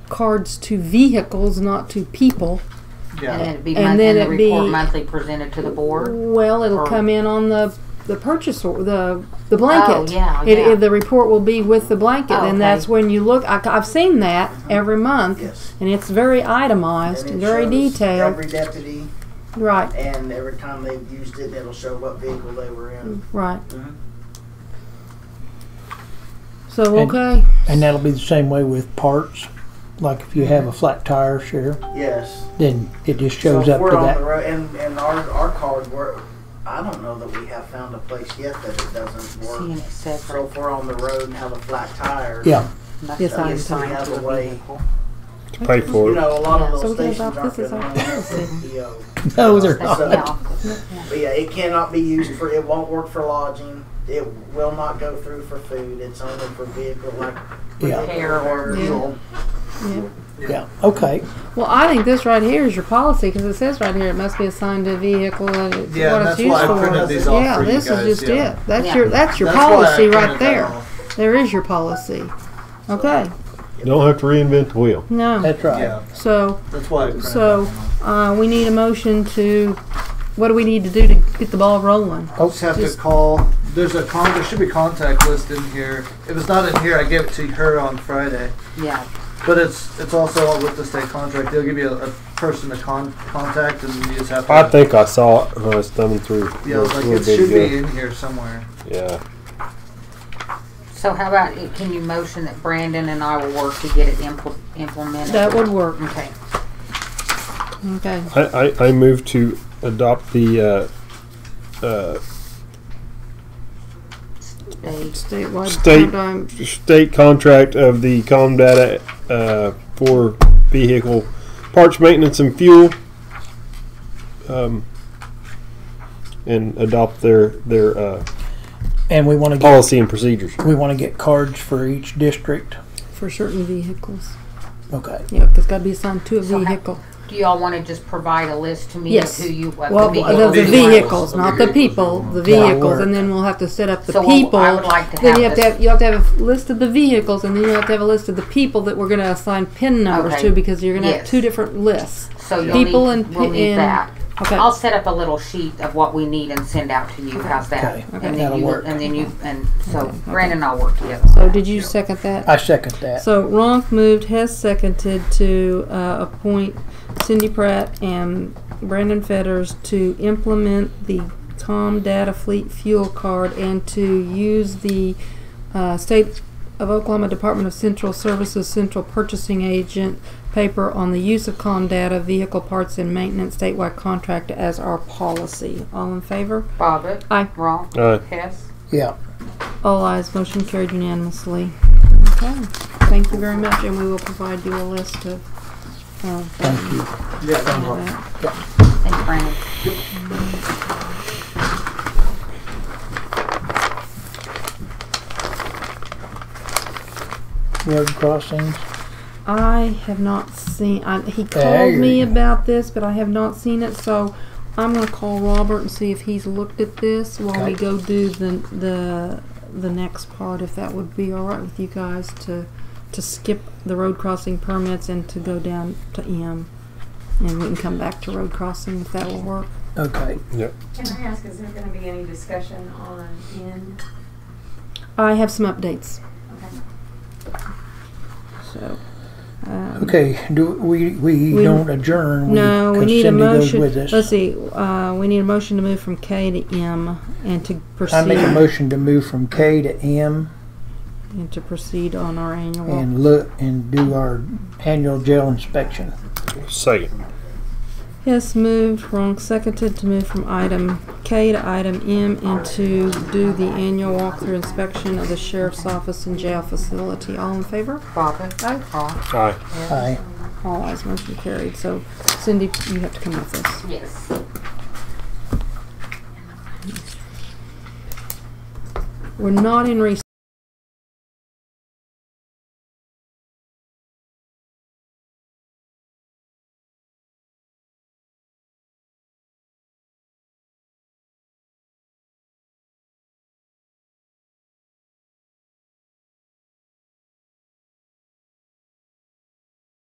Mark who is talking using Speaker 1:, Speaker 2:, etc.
Speaker 1: cards to vehicles, not to people.
Speaker 2: And then
Speaker 3: Yeah,
Speaker 2: it'd be
Speaker 1: And
Speaker 2: month,
Speaker 1: then
Speaker 2: and the
Speaker 1: it'd be-
Speaker 2: report monthly presented to the board.
Speaker 1: Well, it'll
Speaker 2: Or-
Speaker 1: come in on the the purchase or the the blanket.
Speaker 2: Oh, yeah,
Speaker 1: It,
Speaker 2: yeah.
Speaker 1: it- the report will be with the blanket,
Speaker 2: Oh, okay.
Speaker 1: and that's when you look. I, have seen that every month,
Speaker 3: yes.
Speaker 1: and it's very itemized,
Speaker 3: And it
Speaker 1: very
Speaker 3: shows
Speaker 1: detailed.
Speaker 3: Every deputy
Speaker 1: right,
Speaker 3: and every time they've used it, it'll show what vehicle they were in.
Speaker 1: right.
Speaker 4: Uh-huh.
Speaker 3: Mhm.
Speaker 1: So
Speaker 5: And-
Speaker 1: okay,
Speaker 5: And that'll be the same way with parts. Like if you have a flat tire, Sheriff,
Speaker 1: Mm.
Speaker 3: Yes.
Speaker 5: then it just
Speaker 3: So
Speaker 5: shows
Speaker 3: if
Speaker 5: up
Speaker 3: we're
Speaker 5: to
Speaker 3: on
Speaker 5: that.
Speaker 3: the road, and, and our, our cars work, I don't know that we have found a place yet that it doesn't
Speaker 2: Seeing
Speaker 3: work.
Speaker 2: it
Speaker 3: So
Speaker 2: separate.
Speaker 3: if we're on the road and have a flat tire.
Speaker 5: Yeah,
Speaker 2: must
Speaker 1: Yes,
Speaker 2: be
Speaker 1: I
Speaker 2: assigned
Speaker 3: understand.
Speaker 2: to a vehicle.
Speaker 6: pay
Speaker 3: You
Speaker 6: for it.
Speaker 3: know, a lot of
Speaker 1: So
Speaker 3: those
Speaker 1: we got
Speaker 3: stations
Speaker 1: about
Speaker 3: aren't
Speaker 1: this
Speaker 3: gonna
Speaker 1: is our
Speaker 3: run that for PO.
Speaker 5: no, they're
Speaker 2: That's
Speaker 3: So-
Speaker 2: the
Speaker 5: not.
Speaker 2: opposite.
Speaker 3: But yeah, it cannot be used for, it won't work for lodging, it will not go through for food, it's only for vehicle like.
Speaker 5: Yeah.
Speaker 2: Repair or
Speaker 3: Repair.
Speaker 1: yeah.
Speaker 5: Yeah, okay.
Speaker 1: Well, I think this right here is your policy because it says right here it must be assigned to a vehicle and it's
Speaker 4: Yeah,
Speaker 1: what
Speaker 4: that's
Speaker 1: it's used
Speaker 4: why I
Speaker 1: for.
Speaker 4: printed these off
Speaker 1: yeah,
Speaker 4: for you
Speaker 1: this
Speaker 4: guys,
Speaker 1: is just
Speaker 4: yeah.
Speaker 1: it. That's
Speaker 2: Yeah.
Speaker 1: your that's your
Speaker 4: That's why I
Speaker 1: policy
Speaker 4: printed
Speaker 1: right
Speaker 4: that
Speaker 1: there.
Speaker 4: off.
Speaker 1: There is your policy. Okay.
Speaker 6: Don't have to reinvent the wheel.
Speaker 1: No.
Speaker 5: That's right.
Speaker 4: Yeah,
Speaker 1: So
Speaker 4: that's why I printed
Speaker 1: so
Speaker 4: that one off.
Speaker 1: uh, we need a motion to. What do we need to do to get the ball rolling?
Speaker 4: Folks have to call. There's a con. There should be contact list in here. If it's not in here, I gave it to her on Friday.
Speaker 2: Yeah,
Speaker 4: But it's it's also with the state contract. They'll give you a, a person to con- contact, and you just have to.
Speaker 6: I think I saw it when I was thumbing through.
Speaker 4: Yeah, I was like
Speaker 6: Little
Speaker 4: it should be
Speaker 6: video.
Speaker 4: in here somewhere.
Speaker 6: Yeah.
Speaker 2: so how about, it- can you motion that Brandon and I will work to get it impl- implemented?
Speaker 1: That would work.
Speaker 2: Okay,
Speaker 1: Okay.
Speaker 6: I, I, I move to adopt the uh, uh,
Speaker 2: Dave.
Speaker 1: Statewide.
Speaker 6: State-
Speaker 1: crime-
Speaker 6: state contract of the com data uh, for vehicle parts maintenance and fuel um, and adopt their their uh,
Speaker 5: And we want to get
Speaker 6: policy and procedures
Speaker 5: we want to get cards for each district.
Speaker 1: for certain vehicles.
Speaker 5: Okay.
Speaker 1: Yeah, because got to be assigned to a
Speaker 2: So how-
Speaker 1: vehicle.
Speaker 2: Do y'all wanna just provide a list to me of
Speaker 1: Yes.
Speaker 2: who you, what
Speaker 1: Well,
Speaker 2: the
Speaker 1: the,
Speaker 2: vehicle?
Speaker 1: the
Speaker 2: you want?
Speaker 1: vehicles, not the people, the
Speaker 5: Yeah,
Speaker 1: vehicles,
Speaker 5: work.
Speaker 1: and then we'll have to set up the
Speaker 2: So, well,
Speaker 1: people.
Speaker 2: I would like to
Speaker 1: then
Speaker 2: have
Speaker 1: you have to
Speaker 2: this.
Speaker 1: have you have to have a list of the vehicles, and then you have to have a list of the people that we're going to assign PIN numbers
Speaker 2: Okay.
Speaker 1: to because you're going to have
Speaker 2: Yes.
Speaker 1: two different lists.
Speaker 2: So
Speaker 1: People
Speaker 2: you'll need,
Speaker 1: and
Speaker 2: we'll
Speaker 1: pi-
Speaker 2: need
Speaker 1: and-
Speaker 2: that.
Speaker 1: Okay.
Speaker 2: I'll set up a little sheet of what we need and send out to you. How's that?
Speaker 5: Okay.
Speaker 2: And then
Speaker 5: That'll
Speaker 2: you,
Speaker 5: work.
Speaker 2: and then you, and so Brandon and I'll work together.
Speaker 1: so did you second that?
Speaker 5: I second that.
Speaker 1: so Ronk moved, Hess seconded to uh, appoint Cindy Pratt and Brandon Fetters to implement the Com Data Fleet Fuel Card and to use the uh, State of Oklahoma Department of Central Services Central Purchasing Agent paper on the use of COM data, vehicle parts, and maintenance statewide contract as our policy. All in favor?
Speaker 2: Bobbit.
Speaker 1: Aye.
Speaker 2: Wrong.
Speaker 6: Aye.
Speaker 2: Hess.
Speaker 5: Yeah.
Speaker 1: All ayes, motion carried unanimously. Okay, thank you very much, and we will provide you a list of, uh,
Speaker 5: Thank you.
Speaker 4: Yeah.
Speaker 1: that.
Speaker 2: And Brandon.
Speaker 5: Road crossings.
Speaker 1: I have not seen, I, he called
Speaker 5: There
Speaker 1: me
Speaker 5: you go.
Speaker 1: about this, but I have not seen it, so I'm gonna call Robert and see if he's looked at this while we
Speaker 5: Okay.
Speaker 1: go do the, the, the next part, if that would be all right with you guys to, to skip the road crossing permits and to go down to M. And we can come back to road crossing if that will work.
Speaker 5: Okay.
Speaker 7: Can I ask, is there gonna be any discussion on N?
Speaker 1: I have some updates.
Speaker 7: Okay.
Speaker 1: So, um,
Speaker 5: Okay. Do we we,
Speaker 1: We-
Speaker 5: don't adjourn? We,
Speaker 1: no, we
Speaker 5: 'cause
Speaker 1: need a
Speaker 5: Cindy goes
Speaker 1: motion.
Speaker 5: with us.
Speaker 1: Let's see, uh, we need a motion to move from K to M and to
Speaker 5: I make a
Speaker 1: proceed,
Speaker 5: motion to move from K to M
Speaker 1: and to proceed on our annual.
Speaker 5: and look and do our annual jail inspection.
Speaker 6: second
Speaker 1: Hess moved, wrong seconded to move from item K to item M and to do the annual walkthrough inspection of the sheriff's office and jail facility. All in favor?
Speaker 2: Bobbit.
Speaker 1: Aye.
Speaker 2: Wrong.
Speaker 6: aye
Speaker 5: Aye.
Speaker 1: All eyes motion carried. So Cindy, you have to come with us.
Speaker 2: Yes.
Speaker 1: We're not in recess.